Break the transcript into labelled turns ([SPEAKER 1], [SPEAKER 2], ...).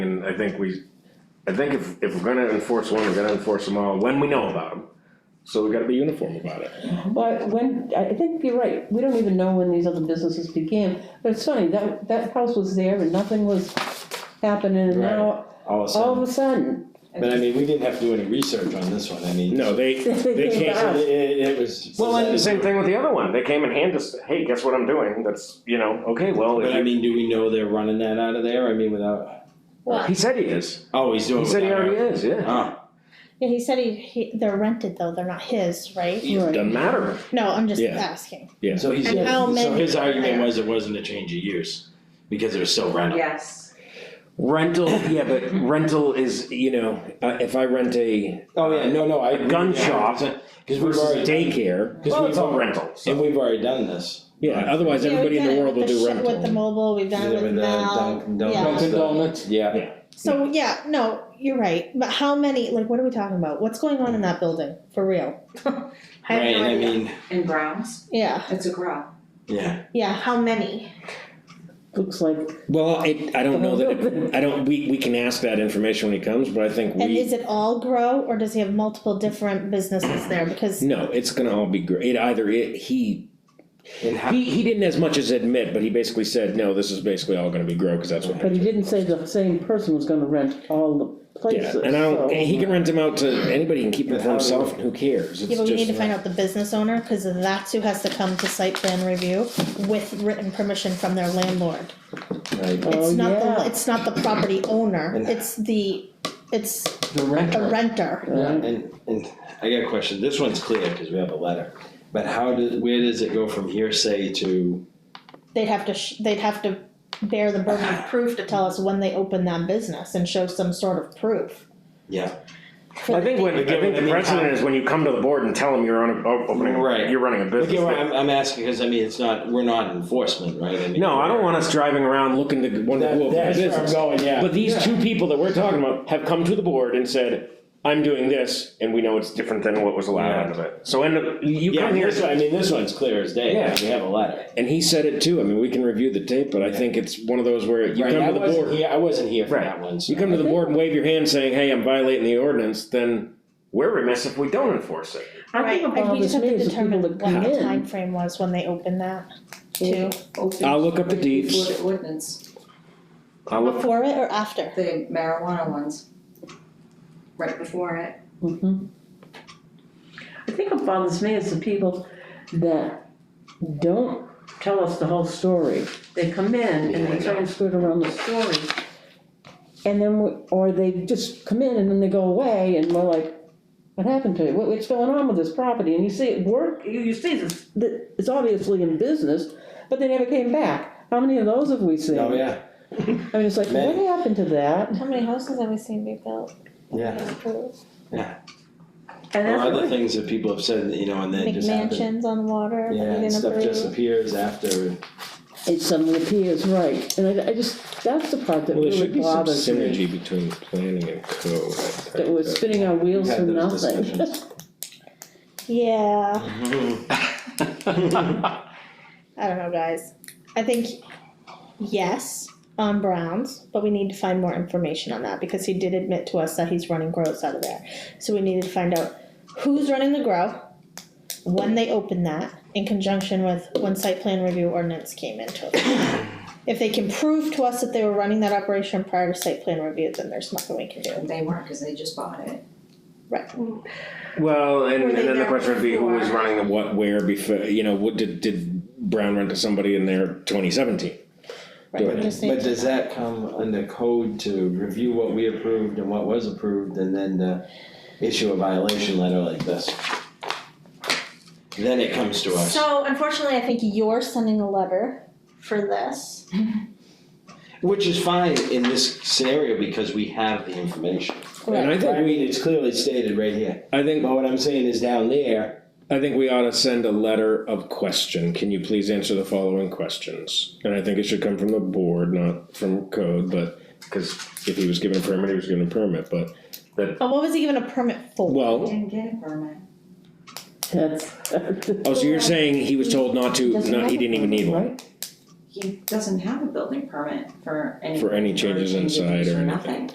[SPEAKER 1] and I think we, I think if, if we're gonna enforce one, we're gonna enforce them all when we know about them. So we gotta be uniform about it.
[SPEAKER 2] But when, I I think you're right, we don't even know when these other businesses began, but it's funny, that, that house was there and nothing was happening, and now,
[SPEAKER 3] all of a
[SPEAKER 2] all of
[SPEAKER 3] sudden.
[SPEAKER 2] a sudden,
[SPEAKER 3] But I mean, we didn't have to do any research on this one, I mean.
[SPEAKER 1] No, they, they
[SPEAKER 2] They
[SPEAKER 1] can't,
[SPEAKER 2] can't.
[SPEAKER 3] It, it- it was.
[SPEAKER 1] Well, and the same thing with the other one, they came and handed us, hey, guess what I'm doing, that's, you know, okay, well,
[SPEAKER 3] But
[SPEAKER 1] if
[SPEAKER 3] I
[SPEAKER 1] you,
[SPEAKER 3] mean, do we know they're running that out of there, I mean, without,
[SPEAKER 4] Well,
[SPEAKER 1] he said he is,
[SPEAKER 3] oh, he's doing
[SPEAKER 1] he
[SPEAKER 3] it
[SPEAKER 1] said he
[SPEAKER 3] without
[SPEAKER 1] already
[SPEAKER 3] her.
[SPEAKER 1] is, yeah.
[SPEAKER 3] Oh,
[SPEAKER 4] yeah, he said he, he, they're rented though, they're not his, right?
[SPEAKER 2] Right.
[SPEAKER 1] Doesn't matter,
[SPEAKER 4] No, I'm just
[SPEAKER 1] Yeah.
[SPEAKER 4] asking.
[SPEAKER 1] Yeah.
[SPEAKER 3] so he's,
[SPEAKER 4] And how
[SPEAKER 3] so
[SPEAKER 4] many
[SPEAKER 3] his argument
[SPEAKER 4] there?
[SPEAKER 3] was it wasn't a change of use, because it was still rental.
[SPEAKER 5] Yes,
[SPEAKER 1] rental, yeah, but rental is, you know, uh, if I rent a
[SPEAKER 3] Oh, yeah, no, no, I.
[SPEAKER 1] A gun shop
[SPEAKER 3] Cause we've
[SPEAKER 1] versus
[SPEAKER 3] already. done-
[SPEAKER 1] daycare,
[SPEAKER 3] Well,
[SPEAKER 1] cause we've
[SPEAKER 3] it's
[SPEAKER 1] all
[SPEAKER 3] all-
[SPEAKER 1] rental,
[SPEAKER 3] And
[SPEAKER 1] so,
[SPEAKER 3] we've already done this.
[SPEAKER 1] yeah, otherwise
[SPEAKER 4] Yeah,
[SPEAKER 1] everybody in the
[SPEAKER 4] we've done it
[SPEAKER 1] world will
[SPEAKER 4] with
[SPEAKER 1] do
[SPEAKER 4] sh-
[SPEAKER 1] rental. uh,
[SPEAKER 4] With the mobile, we've done it with Mel, yeah.
[SPEAKER 3] Dunkin' Donuts, yeah.
[SPEAKER 4] So, yeah, no, you're right, but how many, like, what are we talking about? What's going on in that building, for real? I
[SPEAKER 3] Right,
[SPEAKER 4] have no
[SPEAKER 3] I
[SPEAKER 4] idea.
[SPEAKER 3] mean,
[SPEAKER 5] in Browns,
[SPEAKER 4] Yeah,
[SPEAKER 5] it's a grow.
[SPEAKER 3] yeah,
[SPEAKER 4] yeah, how many?
[SPEAKER 2] looks like,
[SPEAKER 1] Well, it, I don't know that, it- I don't, we, we can ask that information when he comes, but I think
[SPEAKER 4] And is
[SPEAKER 1] we,
[SPEAKER 4] it all grow, or does he have multiple different businesses there? Because,
[SPEAKER 1] no, it's gonna all be great, it either, it, he,
[SPEAKER 3] and how,
[SPEAKER 1] he, he didn't as much as admit, but he basically said, no, this is basically all gonna be grow, cause that's what.
[SPEAKER 2] but he didn't say the same person was gonna rent all the places,
[SPEAKER 1] Yeah,
[SPEAKER 2] so.
[SPEAKER 1] and I don't, and he can rent them out to, anybody can keep them for himself, and who cares,
[SPEAKER 4] yeah,
[SPEAKER 1] it's
[SPEAKER 4] but we need to
[SPEAKER 1] just,
[SPEAKER 4] find out the business owner, cause that's who has to come to site plan review with written permission from their landlord.
[SPEAKER 3] right,
[SPEAKER 2] Oh,
[SPEAKER 4] It's not the,
[SPEAKER 2] yeah.
[SPEAKER 4] it's not the property owner,
[SPEAKER 3] And-
[SPEAKER 4] it's the, it's
[SPEAKER 3] the renter.
[SPEAKER 4] the renter.
[SPEAKER 3] Yeah, and, and I got a question, this one's clear, cause we have a letter, but how does, where does it go from hearsay to,
[SPEAKER 4] They'd have to, sh- they'd have to bear the burden of proof to tell us when they opened that business and show some sort of proof.
[SPEAKER 3] yeah,
[SPEAKER 4] for
[SPEAKER 1] I
[SPEAKER 4] the-
[SPEAKER 1] think when, I think the precedent is when you come to the board and tell them you're on a, o- opening,
[SPEAKER 3] Right.
[SPEAKER 1] you're running a
[SPEAKER 3] look
[SPEAKER 1] business.
[SPEAKER 3] at what, I'm, I'm asking, cause I mean, it's not, we're not enforcement, right, I mean.
[SPEAKER 1] No, I don't want us driving around looking to, wonder who opened the business.
[SPEAKER 3] going, yeah.
[SPEAKER 1] But these two people that we're talking about have come to the board and said, I'm doing this, and we know it's different than what was allowed
[SPEAKER 3] Yeah.
[SPEAKER 1] out of it. So, and you
[SPEAKER 3] Yeah,
[SPEAKER 1] come here,
[SPEAKER 3] this one, I mean, this one's clear as day, I mean, we have a letter.
[SPEAKER 1] and he said it too, I mean, we can review the tape, but I think it's one of those where you
[SPEAKER 3] Right,
[SPEAKER 1] come
[SPEAKER 3] I
[SPEAKER 1] to the
[SPEAKER 3] wasn't
[SPEAKER 1] board.
[SPEAKER 3] here- I wasn't here for
[SPEAKER 1] Right.
[SPEAKER 3] that one, so.
[SPEAKER 1] You come to the board and wave your hand saying, hey, I'm violating the ordinance, then we're remiss if we don't enforce it.
[SPEAKER 2] I
[SPEAKER 4] Right,
[SPEAKER 2] think
[SPEAKER 4] and
[SPEAKER 2] about
[SPEAKER 4] we
[SPEAKER 2] this
[SPEAKER 4] just have to
[SPEAKER 2] means the people
[SPEAKER 4] determine what
[SPEAKER 2] that
[SPEAKER 4] the
[SPEAKER 2] come in,
[SPEAKER 4] timeframe was when they opened that too,
[SPEAKER 5] Open
[SPEAKER 1] I'll look up the deeds.
[SPEAKER 5] Before the ordinance,
[SPEAKER 1] I'll look-
[SPEAKER 4] before it or after?
[SPEAKER 5] the marijuana ones, right before it.
[SPEAKER 2] Mhm. I think what bothers me is the people that don't tell us the whole story. They come in and they try and skirt around the story. And then, we- or they just come in and then they go away and we're like, what happened to you? What, what's going on with this property? And you see it work, you, you see this, that it's obviously in business, but they never came back. How many of those have we seen?
[SPEAKER 3] Oh, yeah,
[SPEAKER 2] I mean, it's like, what
[SPEAKER 3] Many.
[SPEAKER 2] happened to that?
[SPEAKER 4] How many houses have we seen be built
[SPEAKER 3] yeah,
[SPEAKER 2] And
[SPEAKER 3] or
[SPEAKER 2] that's
[SPEAKER 3] other
[SPEAKER 2] really-
[SPEAKER 3] things that people have said, you know, and then it just happened.
[SPEAKER 4] McMansions on water, that we
[SPEAKER 3] Yeah, and
[SPEAKER 4] didn't
[SPEAKER 3] stuff
[SPEAKER 4] approve.
[SPEAKER 3] just appears after.
[SPEAKER 2] it suddenly appears, right, and I, I just, that's the part that
[SPEAKER 1] Well, there
[SPEAKER 2] really
[SPEAKER 1] should be some
[SPEAKER 2] bothers me.
[SPEAKER 1] synergy between planning and code. I think,
[SPEAKER 2] That we're
[SPEAKER 1] that-
[SPEAKER 2] spinning our
[SPEAKER 3] We've
[SPEAKER 2] wheels
[SPEAKER 3] had
[SPEAKER 2] for
[SPEAKER 3] those
[SPEAKER 2] nothing.
[SPEAKER 3] discussions.
[SPEAKER 4] Yeah, I don't know, guys. I think yes on Browns, but we need to find more information on that because he did admit to us that he's running grows out of there. So we needed to find out who's running the grow, when they opened that, in conjunction with when site plan review ordinance came into it. If they can prove to us that they were running that operation prior to site plan review, then there's nothing we can do.
[SPEAKER 5] They weren't, cause they just bought it.
[SPEAKER 4] Right.
[SPEAKER 1] Well, and,
[SPEAKER 4] Were
[SPEAKER 1] and
[SPEAKER 4] they
[SPEAKER 1] then the
[SPEAKER 4] there
[SPEAKER 1] question would be who was
[SPEAKER 4] before?
[SPEAKER 1] running the what, where before, you know, what did, did Brown rent to somebody in there twenty seventeen?
[SPEAKER 4] Right.
[SPEAKER 3] But, but does that come under code to review what we approved and what was approved and then to issue a violation letter like this? Then it comes to us.
[SPEAKER 4] So unfortunately, I think you're sending a letter for this.
[SPEAKER 3] Which is fine in this scenario because we have the information.
[SPEAKER 1] And I
[SPEAKER 3] I
[SPEAKER 1] think
[SPEAKER 3] mean,
[SPEAKER 1] we,
[SPEAKER 3] it's clearly stated right here.
[SPEAKER 1] I think,
[SPEAKER 3] But what I'm saying is down there,
[SPEAKER 1] I think we ought to send a letter of question, can you please answer the following questions? And I think it should come from the board, not from code, but, cause if he was given a permit, he was given a permit, but that,
[SPEAKER 4] But what was he given a permit for?
[SPEAKER 5] They
[SPEAKER 1] well,
[SPEAKER 5] Didn't get a permit.
[SPEAKER 2] That's.
[SPEAKER 1] oh, so you're saying he was told not to,
[SPEAKER 2] Doesn't
[SPEAKER 1] not, he
[SPEAKER 2] have
[SPEAKER 1] didn't even
[SPEAKER 2] a
[SPEAKER 1] need one?
[SPEAKER 2] permit, right?
[SPEAKER 5] He doesn't have a building permit for any.
[SPEAKER 1] For any changes inside or
[SPEAKER 5] for
[SPEAKER 1] anything.
[SPEAKER 5] nothing.